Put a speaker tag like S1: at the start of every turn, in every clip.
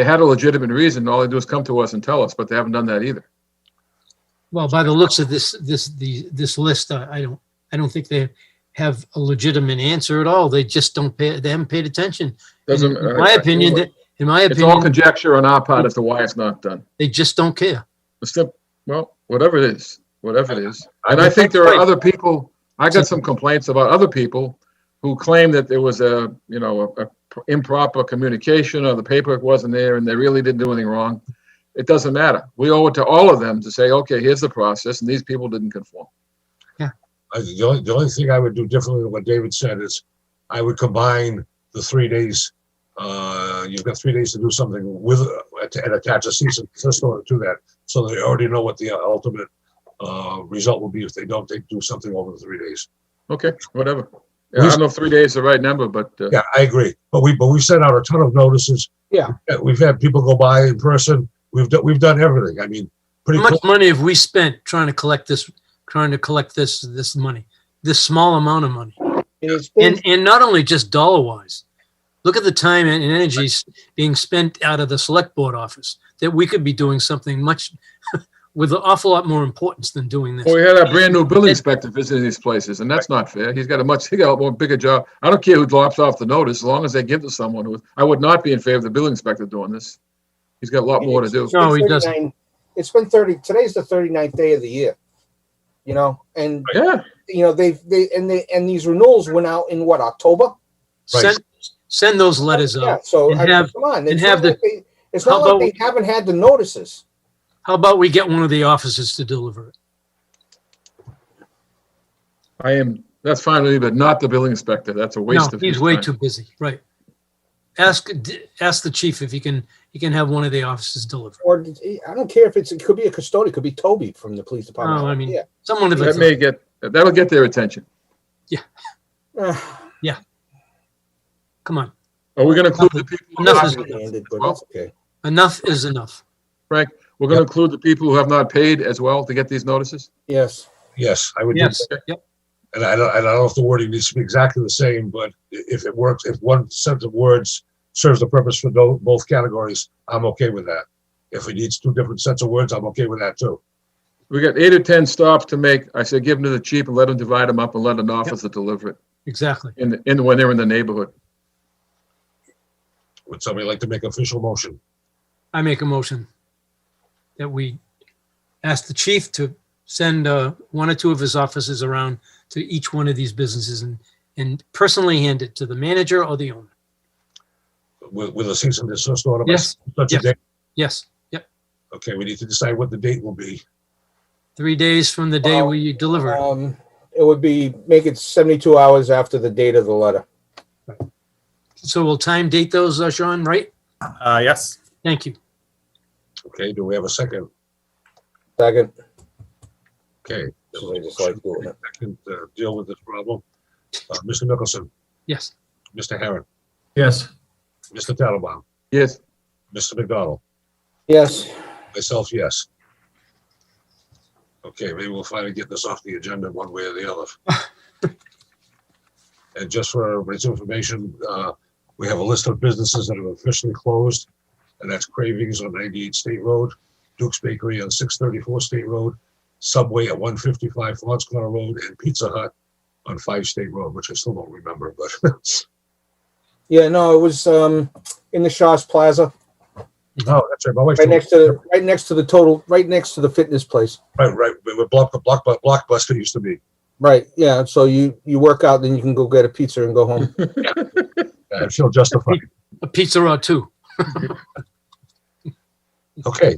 S1: they had a legitimate reason, all they do is come to us and tell us, but they haven't done that either.
S2: Well, by the looks of this, this, the, this list, I, I don't, I don't think they have a legitimate answer at all. They just don't pay, they haven't paid attention.
S1: Doesn't.
S2: In my opinion, that, in my
S1: It's all
S2: opinion,
S1: conjecture on our part as to why it's not done.
S2: they just don't care.
S1: It's the, well, whatever it is, whatever it is. And I think there are other people, I got some complaints about other people who claim that there was a, you know, a a improper communication or the paperwork wasn't there and they really didn't do anything wrong. It doesn't matter. We owe it to all of them to say, okay, here's the process and these people didn't conform.
S3: I, the only, the only thing I would do differently than what David said is I would combine the three days. Uh, you've got three days to do something with uh, and attach a cease and desist order to that, so they already know what the ultimate uh, result will be if they don't. They do something over the three days.
S1: Okay, whatever. Yeah, I don't know if three days is the right number, but, uh,
S3: Yeah, I agree. But we but we sent out a ton of notices.
S4: Yeah.
S3: Uh, we've had people go by in person. We've done we've done everything. I mean, pretty
S2: How much
S3: close.
S2: money have we spent trying to collect this, trying to collect this, this money? This small amount of money.
S4: And it's been,
S2: And, and not only just dollar wise. Look at the time and energy s- being spent out of the select board office that we could be doing something much with an awful lot more importance than doing this.
S1: well, we had our brand new building inspector visiting these places and that's not fair. He's got a much, he got a more bigger job. I don't care who drops off the notice, as long as they give to someone who, I would not be in favor of the building inspector doing this. He's got a lot more to do.
S4: it's been
S2: No, he doesn't.
S4: 39 It's been thirty, today's the 39th day of the year, you know, and,
S1: Yeah.
S4: you know, they've, they, and they, and these renewals went out in what, October?
S3: Right.
S2: Send, send those letters
S4: Yeah,
S2: out.
S4: so,
S2: and
S4: I mean,
S2: have-
S4: come on,
S2: and
S4: it's
S2: have
S4: not
S2: the-
S4: like they, it's
S2: how
S4: not like
S2: about-
S4: they haven't had the notices.
S2: How about we get one of the offices to deliver it?
S1: I am, that's fine with me, but not the building inspector. That's a
S2: No,
S1: waste of his
S2: he's way
S1: time.
S2: too busy, right. Ask, d- ask the chief if he can, he can have one of the offices deliver. it.
S4: Or, I don't care if it's, it could be a custodian, it could be Toby from the police department.
S2: No, Oh, I mean-
S4: Yeah.
S2: Someone of
S1: That
S2: it,
S1: may get, that'll get their attention.
S4: Ah,
S2: come on,
S1: Are we gonna include the people? who
S2: Nothing.
S1: have-
S4: Ended, but it's okay.
S2: enough is enough.
S1: Frank, we're gonna include the people who have not paid as well to get these notices?
S4: Yes.
S3: Yes, I would. do
S2: Yes, yep,
S3: and I don't, I don't know if the wording needs to be exactly the same, but i- if it works, if one set of words serves the purpose for tho- both categories, I'm okay with that. If it needs two different sets of words, I'm okay with that too.
S1: We got eight or 10 stops to make. I say, give them to the chief and let him divide them up and let an officer deliver it
S2: exactly.
S1: in, the- in, when they're in the neighborhood.
S3: Would somebody like to make official motion?
S2: I make a motion that we ask the chief to send uh, one or two of his officers around to each one of these businesses and, and personally hand it to the manager or the owner.
S3: With, with a cease and desist order? by
S2: Yes,
S3: Such a
S2: yes.
S3: date?
S2: yes, yep.
S3: Okay, we need to decide what the date will be.
S2: Three days from the day
S4: Well,
S2: we deliver. it.
S4: Um, it would be, make it seventy-two hours after the date of the letter.
S2: So we'll time date those, uh, Sean, right?
S5: Uh, yes.
S2: Thank you.
S3: Okay, do we have a second?
S4: Second,
S3: Okay.
S4: Somebody just likes doing it.
S3: I can uh, deal with this problem. Uh, Mr. Mickelson,
S2: Yes.
S3: Mr. Herron,
S5: Yes.
S3: Mr. Tattelbaum,
S1: Yes,
S3: Mr. McDonald.
S4: yes.
S3: Myself, yes. Okay, maybe we'll finally get this off the agenda one way or the other. And just for everybody's information, uh, we have a list of businesses that are officially closed, and that's Cravings on 98 State Road, Duke's Bakery on 634 State Road, Subway at 155 Fons Corner Road, and Pizza Hut on 5 State Road, which I still don't remember, but,
S4: Yeah, no, it was, um, in the Shaw's Plaza,
S3: oh, that's right. my wife told
S4: right
S3: me-
S4: next to, right next to the total, right next to the fitness place.
S3: Right, right, where Block- Block- Blockbuster used to be.
S4: Right, yeah, so you, you work out, then you can go get a pizza and go home.
S3: I feel justified.
S2: A pizza or two.
S3: Okay.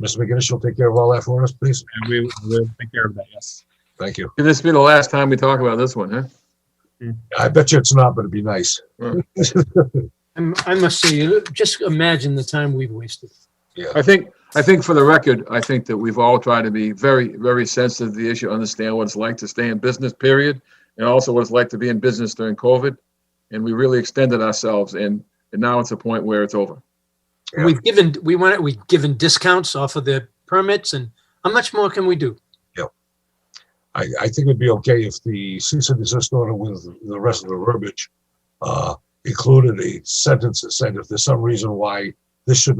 S3: Mr. McGinnis, you'll take care of all that for us, please.
S5: And we will take care of that. Yes.
S3: Thank you.
S1: can this be the last time we talk about this one, huh?
S3: I bet you it's not, but it'd be nice.
S1: Hmm.
S2: I'm, I must say, you know, just imagine the time we've wasted.
S1: I think, I think for the record, I think that we've all tried to be very, very sensitive to the issue, understand what it's like to stay in business, period, and also what it's like to be in business during COVID. And we really extended ourselves and, and now it's a point where it's over.
S3: Yeah.
S2: We've given, we went, we've given discounts off of the permits and how much more can we do?
S3: I, I think it'd be okay if the cease and desist order with the rest of the verbiage uh, included a sentence that said if there's some reason why this should